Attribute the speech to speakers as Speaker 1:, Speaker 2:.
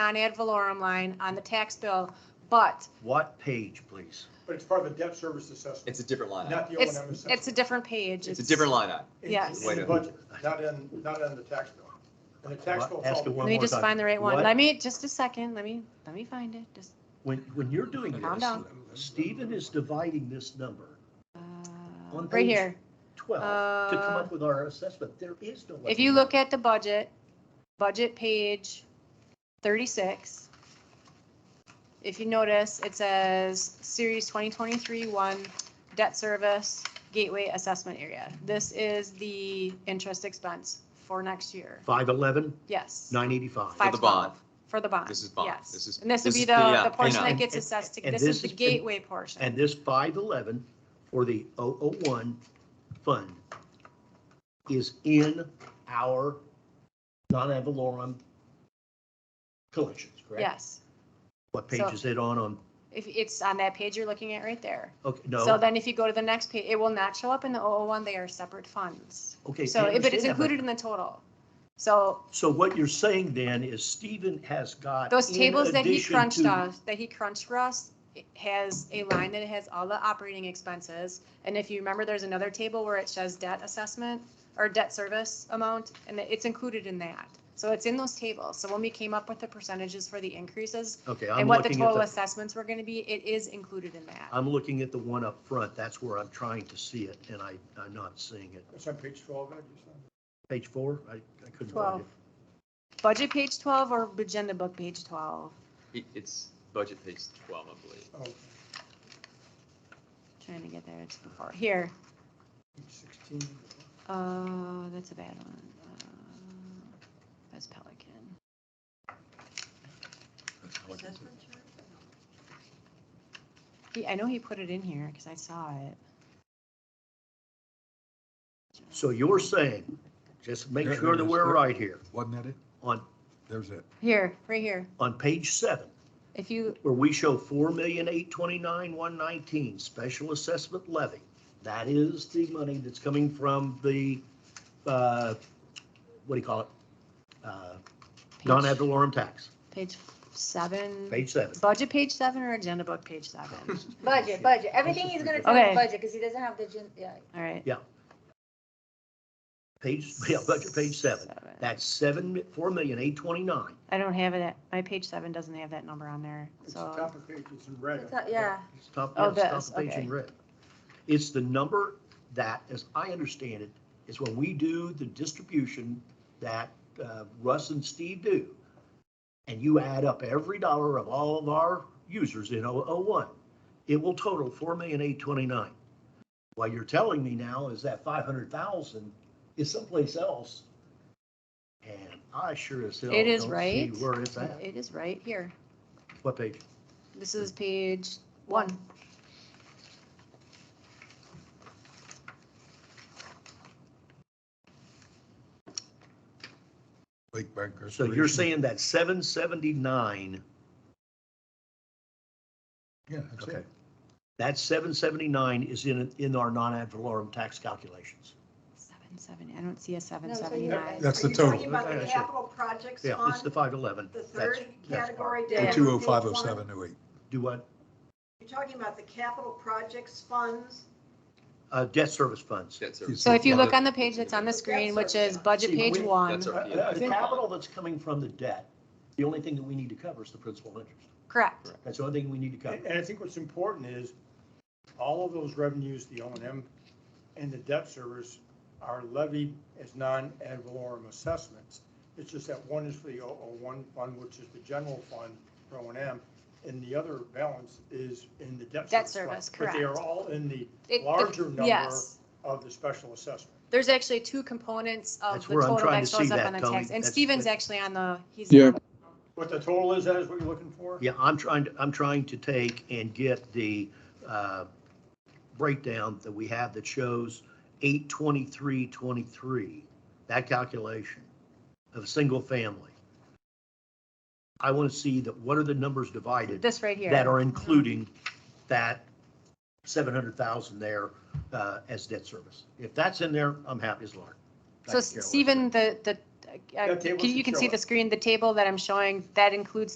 Speaker 1: non-ad valorem line on the tax bill, but
Speaker 2: What page, please?
Speaker 3: But it's part of the debt service assessment,
Speaker 4: It's a different line item.
Speaker 3: not the O and
Speaker 1: it's,
Speaker 3: M assessment.
Speaker 1: it's a different page.
Speaker 4: It's a different line item.
Speaker 3: In-
Speaker 1: yes.
Speaker 3: In
Speaker 4: Wait
Speaker 3: the
Speaker 4: a-
Speaker 3: budget, not in, not in the tax bill. And the tax bill.
Speaker 2: Ask it
Speaker 1: Let
Speaker 2: one
Speaker 1: me
Speaker 2: more
Speaker 1: just
Speaker 2: time.
Speaker 1: find the right one.
Speaker 2: What-
Speaker 1: Let me, just a second, let me, let me find it, just,
Speaker 2: When, when you're doing
Speaker 1: Calm
Speaker 2: this,
Speaker 1: down.
Speaker 2: Stephen is dividing this number,
Speaker 1: uh,
Speaker 2: On
Speaker 1: right
Speaker 2: page-
Speaker 1: here.
Speaker 2: twelve, to come
Speaker 1: Uh,
Speaker 2: up with our assessment. There is no.
Speaker 1: If you look at the budget, budget page thirty-six, if you notice, it says series twenty twenty-three one, debt service, gateway assessment area. This is the interest expense for next year.
Speaker 2: Five eleven,
Speaker 1: Yes.
Speaker 2: nine eighty-five.
Speaker 4: For
Speaker 1: Five
Speaker 4: the
Speaker 1: twelve.
Speaker 4: bond.
Speaker 1: For the bond.
Speaker 4: This is bond.
Speaker 1: yes.
Speaker 4: This is-
Speaker 1: And this would
Speaker 4: this
Speaker 1: be
Speaker 4: is
Speaker 1: the,
Speaker 4: payout,
Speaker 1: the portion that
Speaker 4: payout.
Speaker 1: gets
Speaker 2: And-
Speaker 1: assessed. to-
Speaker 2: and
Speaker 1: This is
Speaker 2: this
Speaker 1: the
Speaker 2: is- and-
Speaker 1: gateway
Speaker 2: And
Speaker 1: portion.
Speaker 2: this five eleven for the 001 fund is in our non-ad valorem collections, correct?
Speaker 1: Yes.
Speaker 2: What page
Speaker 1: So-
Speaker 2: is it on, on,
Speaker 1: If it's on that page you're looking at right there.
Speaker 2: okay,
Speaker 1: So
Speaker 2: no,
Speaker 1: then if you go to the next page, it will not show up in the 001. They are separate funds.
Speaker 2: okay.
Speaker 1: So
Speaker 2: I
Speaker 1: if it is
Speaker 2: understand, but-
Speaker 1: included in the total. So
Speaker 2: So what you're saying then is Stephen has got.
Speaker 1: those
Speaker 2: in
Speaker 1: tables that he
Speaker 2: addition
Speaker 1: crunched
Speaker 2: to-
Speaker 1: us, that he crunched for us, it has a line that has all the operating expenses. And if you remember, there's another table where it says debt assessment or debt service amount, and it's included in that. So it's in those tables. So when we came up with the percentages for the increases
Speaker 2: Okay,
Speaker 1: and
Speaker 2: I'm
Speaker 1: what the
Speaker 2: looking at
Speaker 1: total
Speaker 2: the,
Speaker 1: assessments were going to be, it is included in that.
Speaker 2: I'm looking at the one up front. That's where I'm trying to see it and I, I'm not seeing it.
Speaker 3: It's on page twelve, I just said.
Speaker 2: Page four, I, I couldn't
Speaker 1: 12.
Speaker 2: find it.
Speaker 1: Budget page 12 or agenda book page 12?
Speaker 4: It- It's budget page 12, I believe.
Speaker 3: Oh, page
Speaker 1: Trying to get there, it's before, here,
Speaker 3: sixteen.
Speaker 1: uh, that's a bad one. Uh, That's Pelican. He, I know he put it in here, because I saw it.
Speaker 2: So you're saying, just make sure that we're right here.
Speaker 5: Wasn't that it?
Speaker 2: On,
Speaker 5: There's it.
Speaker 1: Here, right here,
Speaker 2: on page seven,
Speaker 1: if you,
Speaker 2: where we show four million, eight twenty-nine, one nineteen, special assessment levy. That is the money that's coming from the, uh, what do you call it? Uh, Non-ad
Speaker 1: page,
Speaker 2: valorem tax,
Speaker 1: page seven,
Speaker 2: page seven.
Speaker 1: budget page seven or agenda book page seven?
Speaker 6: Budget, budget, everything he's gonna tell
Speaker 1: Okay.
Speaker 6: is budget, because he doesn't have the, gen- yeah.
Speaker 1: All right.
Speaker 2: Page, yeah, budget page seven. That's seven, four million, eight twenty-nine.
Speaker 1: I don't have it, at- my page seven doesn't have that number on there,
Speaker 3: It's the
Speaker 1: so, uh,
Speaker 3: top of the page, it's in red.
Speaker 6: It's not- Yeah,
Speaker 2: It's top,
Speaker 1: Oh,
Speaker 2: yeah, it's
Speaker 1: this,
Speaker 2: top of page
Speaker 1: okay.
Speaker 2: in red. It's the number that, as I understand it, is when we do the distribution that uh, Russ and Steve do. And you add up every dollar of all of our users in 001, it will total four million eight twenty-nine. What you're telling me now is that five hundred thousand is someplace else. And I sure as hell
Speaker 1: It
Speaker 2: don't
Speaker 1: is
Speaker 2: see
Speaker 1: right.
Speaker 2: where it's at.
Speaker 1: it is right here.
Speaker 2: What page?
Speaker 1: This is page one.
Speaker 5: Lake Bank
Speaker 2: So you're
Speaker 5: Restoration.
Speaker 2: saying that seven seventy-nine
Speaker 5: Yeah, that's
Speaker 2: Okay.
Speaker 5: it.
Speaker 2: That seven seventy-nine is in, in our non-ad valorem tax calculations.
Speaker 1: Seven seventy, I don't see a seven
Speaker 6: No, so
Speaker 1: seventy
Speaker 6: you-
Speaker 1: nine.
Speaker 5: That's the
Speaker 7: Are you talking
Speaker 5: total.
Speaker 7: about
Speaker 2: Yeah,
Speaker 7: the
Speaker 2: sure.
Speaker 7: capital projects
Speaker 2: Yeah,
Speaker 7: on
Speaker 2: it's the five eleven.
Speaker 7: the third category
Speaker 5: The
Speaker 7: down?
Speaker 5: two oh five oh
Speaker 7: Page one?
Speaker 5: seven oh eight.
Speaker 2: Do what?
Speaker 7: You're talking about the capital projects funds?
Speaker 2: Uh, debt service funds.
Speaker 4: Debt service.
Speaker 1: So if you look on the page that's on the screen, which is budget
Speaker 2: See,
Speaker 1: page
Speaker 2: we-
Speaker 1: one,
Speaker 4: That's our-
Speaker 2: Uh,
Speaker 4: yeah.
Speaker 2: The capital that's coming from the debt, the only thing that we need to cover is the principal and interest.
Speaker 1: correct,
Speaker 2: That's the only thing we need to cover.
Speaker 3: And and I think what's important is, all of those revenues, the O and M and the debt service are levied as non-ad valorem assessments. It's just that one is for the 001 fund, which is the general fund for O and M, and the other balance is in the debt service.
Speaker 1: Debt
Speaker 3: fund.
Speaker 1: service,
Speaker 3: But they are
Speaker 1: correct.
Speaker 3: all in the
Speaker 1: It- the-
Speaker 3: larger number
Speaker 1: yes.
Speaker 3: of the special assessment.
Speaker 1: There's actually two components of
Speaker 2: That's
Speaker 1: the
Speaker 2: where I'm
Speaker 1: total
Speaker 2: trying
Speaker 1: that
Speaker 2: to
Speaker 1: shows
Speaker 2: see
Speaker 1: up
Speaker 2: that,
Speaker 1: on the
Speaker 2: Tony.
Speaker 1: tax, and
Speaker 2: That's-
Speaker 1: Steven's actually on the, he's.
Speaker 8: Yeah.
Speaker 3: What the total is, that is what you're looking for?
Speaker 2: Yeah, I'm trying, to I'm trying to take and get the uh, breakdown that we have that shows eight twenty-three twenty-three, that calculation of a single family. I want to see that, what are the numbers divided
Speaker 1: This right
Speaker 2: that
Speaker 1: here,
Speaker 2: are including that seven hundred thousand there uh, as debt service? If that's in there, I'm happy as Lord.
Speaker 1: so
Speaker 2: I don't care what-
Speaker 1: Steven, the, the uh,
Speaker 3: That table's
Speaker 1: can- you
Speaker 3: to
Speaker 1: can
Speaker 3: show
Speaker 1: see
Speaker 3: it.
Speaker 1: the screen, the table that I'm showing, that includes